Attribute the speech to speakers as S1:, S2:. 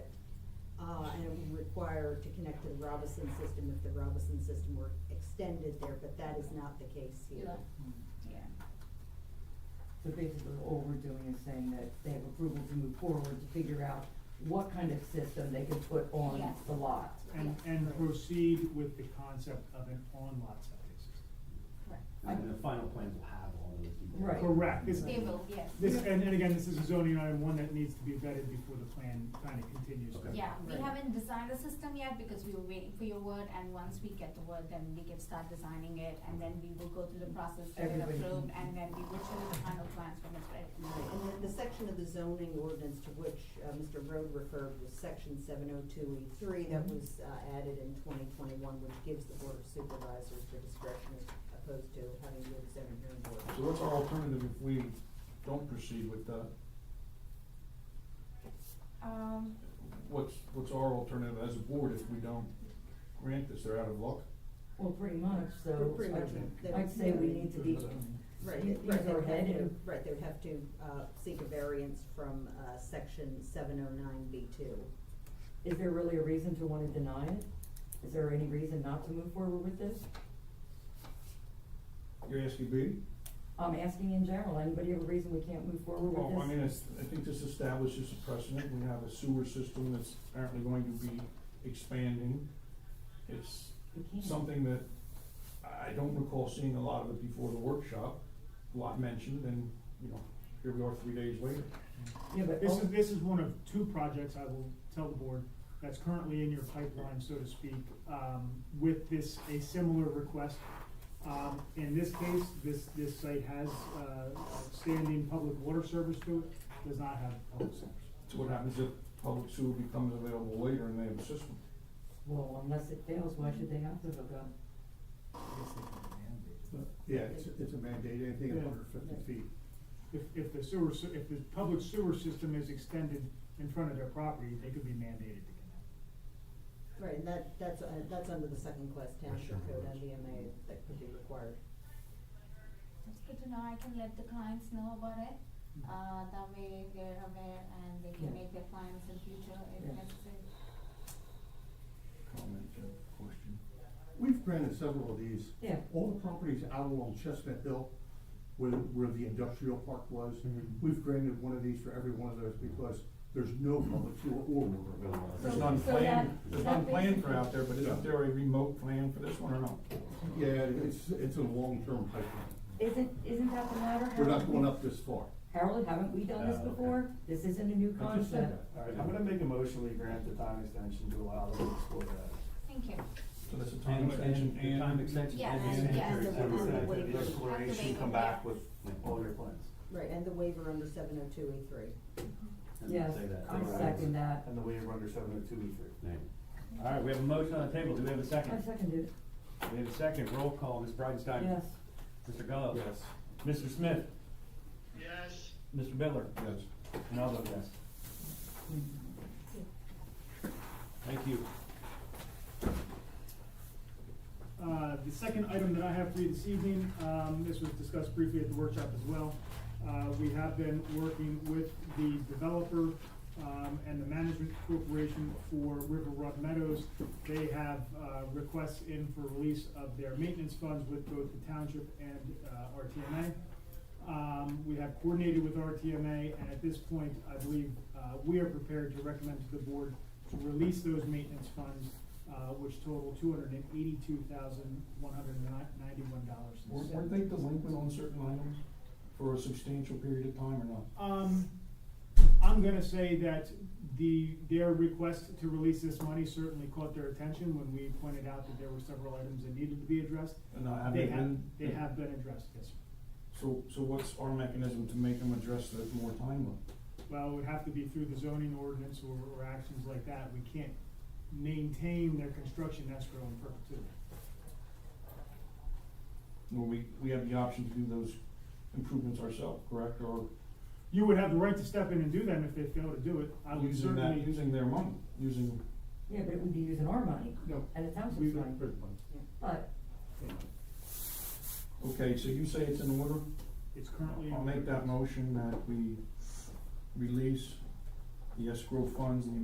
S1: uh, require to connect to the Robison system if the Robison system were extended there, but that is not the case here.
S2: Yeah.
S3: Yeah.
S4: So basically, all we're doing is saying that they have approval to move forward to figure out what kind of system they can put on
S3: Yes.
S4: the lot.
S5: And, and proceed with the concept of an on-lot septic system.
S3: Correct.
S6: And the final plans will have all those details.
S4: Right.
S5: Correct. This-
S3: They will, yes.
S5: This, and, and again, this is a zoning item, one that needs to be vetted before the plan kind of continues.
S6: Okay.
S3: Yeah, we
S4: Right.
S3: haven't designed the system yet because we were waiting for your word and once we get the word, then we can start designing it and then we will go through the process to get
S4: Everybody
S3: approved
S4: can-
S3: and then we will show you the final plans when it's ready.
S1: Right, And then the section of the zoning ordinance to which uh, Mr. Rode referred was section seven oh two E three that
S4: Mhm.
S1: was uh, added in twenty twenty-one, which gives the board of supervisors the discretion as opposed to having the zoning hearing board.
S7: So what's our alternative if we don't proceed with the,
S3: Um,
S7: what's, what's our alternative as a board if we don't grant this, they're out of luck?
S4: Well, pretty much, so
S1: Pretty much,
S4: I'd,
S1: they-
S4: I'd say we need to be,
S1: Right,
S4: Yeah,
S1: right,
S4: these
S1: they
S4: are
S1: would have to,
S4: headed.
S1: right, they would have to, uh, seek a variance from, uh, section seven oh nine B two.
S4: is there really a reason to wanna deny it? Is there any reason not to move forward with this?
S7: You're asking me?
S4: I'm asking in general, anybody have a reason we can't move forward with this?
S7: Well, I mean, it's, I think this establishes a precedent, we have a sewer system that's apparently going to be expanding. It's
S4: We can't.
S7: something that I I don't recall seeing a lot of it before the workshop, a lot mentioned, and, you know, here we are three days later.
S4: Yeah, but.
S5: This
S4: oh,
S5: is, this is one of two projects I will tell the board that's currently in your pipeline, so to speak, um, with this, a similar request. Um, in this case, this, this site has, uh, standing public water service to it, does not have public service.
S7: So what happens if public sewer becomes available later and they have a system?
S4: Well, unless it fails, why should they have to hook up?
S6: Yeah, it's, it's a mandate, anything
S5: Yeah.
S6: under fifty feet.
S5: If, if the sewer, sy- if the public sewer system is extended in front of their property, they could be mandated to connect.
S1: Right, and that, that's, uh, that's under the second class township
S6: Sure.
S1: code, MDMA, that could be required.
S3: That's good to know, I can let the clients know about it, uh, that way they're aware and they can
S4: Mm-hmm. Yeah.
S3: make their plans in future if
S4: Yeah.
S3: necessary.
S6: Comment, uh, question. We've granted several of these.
S4: Yeah.
S6: All the properties out along Chestnut Hill, where, where the industrial park was,
S8: Mm-hmm.
S7: Mhm.
S6: we've granted one of these for every one of those because there's no public sewer or water available.
S7: There's
S3: So-
S7: not
S3: so that-
S7: planned, there's
S3: so that
S7: not planned for
S3: basically-
S7: out there, but isn't there a remote plan for this one or no?
S6: Yeah, it's, it's a long-term pipeline.
S4: Isn't, isn't that the matter?
S6: We're
S4: Harold?
S6: not going up this far.
S4: Harold, haven't we done this
S8: Oh, okay.
S4: before? This isn't a new
S6: I just said
S4: concept.
S8: All right, I'm gonna make a motion to grant the time extension to allow them to explore that.
S3: Thank you.
S7: So that's a time extension and.
S8: Time extension.
S3: Yeah,
S8: and
S3: and- yeah, and
S8: the
S3: the-
S8: activity,
S3: and the
S8: the
S1: waiver.
S8: Exploration,
S3: Activate,
S8: come back
S3: yeah.
S8: with all your plans.
S1: Right, and the waiver under seven oh two E three.
S8: and
S4: Yes,
S8: say that.
S4: I second that.
S8: And the waiver under seven oh two E three.
S9: All right, we have a motion on the table. Do we have a
S4: I
S9: second?
S4: seconded it,
S9: We have a second. Roll call, Ms. Bridenstine.
S4: yes.
S9: Mr. Gallo. Mr. Smith. Yes. Mr. Bittler.
S7: Yes.
S9: And I'll vote yes. Thank you.
S5: Uh, The second item that I have for you this evening, um, this was discussed briefly at the workshop as well. Uh, We have been working with the developer um, and the management corporation for River Rock Meadows. They have uh, requests in for release of their maintenance funds with both the township and uh, RTMA. Um, We have coordinated with RTMA, and at this point, I believe uh, we are prepared to recommend to the board to release those maintenance funds, uh, which total two hundred and eighty-two thousand, one hundred and ninety-one dollars
S7: Weren't weren't they delinquent on certain items for a substantial period of time or not?
S5: Um, I'm gonna say that the, their request to release this money certainly caught their attention when we pointed out that there were several items that needed to be addressed.
S7: And not have
S5: They
S7: they
S5: have,
S7: been?
S5: they have been addressed, yes, sir.
S7: So, so what's our mechanism to make them address it more timely?
S5: Well, it would have to be through the zoning ordinance or, or actions like that. We can't maintain their construction escrow in perpetuity.
S7: Where we, we have the option to do those improvements ourselves, correct, or
S5: You would have the right to step in and do them if they fail to do it. I would
S7: using that,
S5: certainly,
S7: using their money, using,
S4: Yeah, but it would be using our money
S7: No.
S4: and the
S5: We-
S4: township's money, but
S7: okay, so you say it's in order?
S5: it's currently.
S7: I'll make that motion that we release the escrow funds in the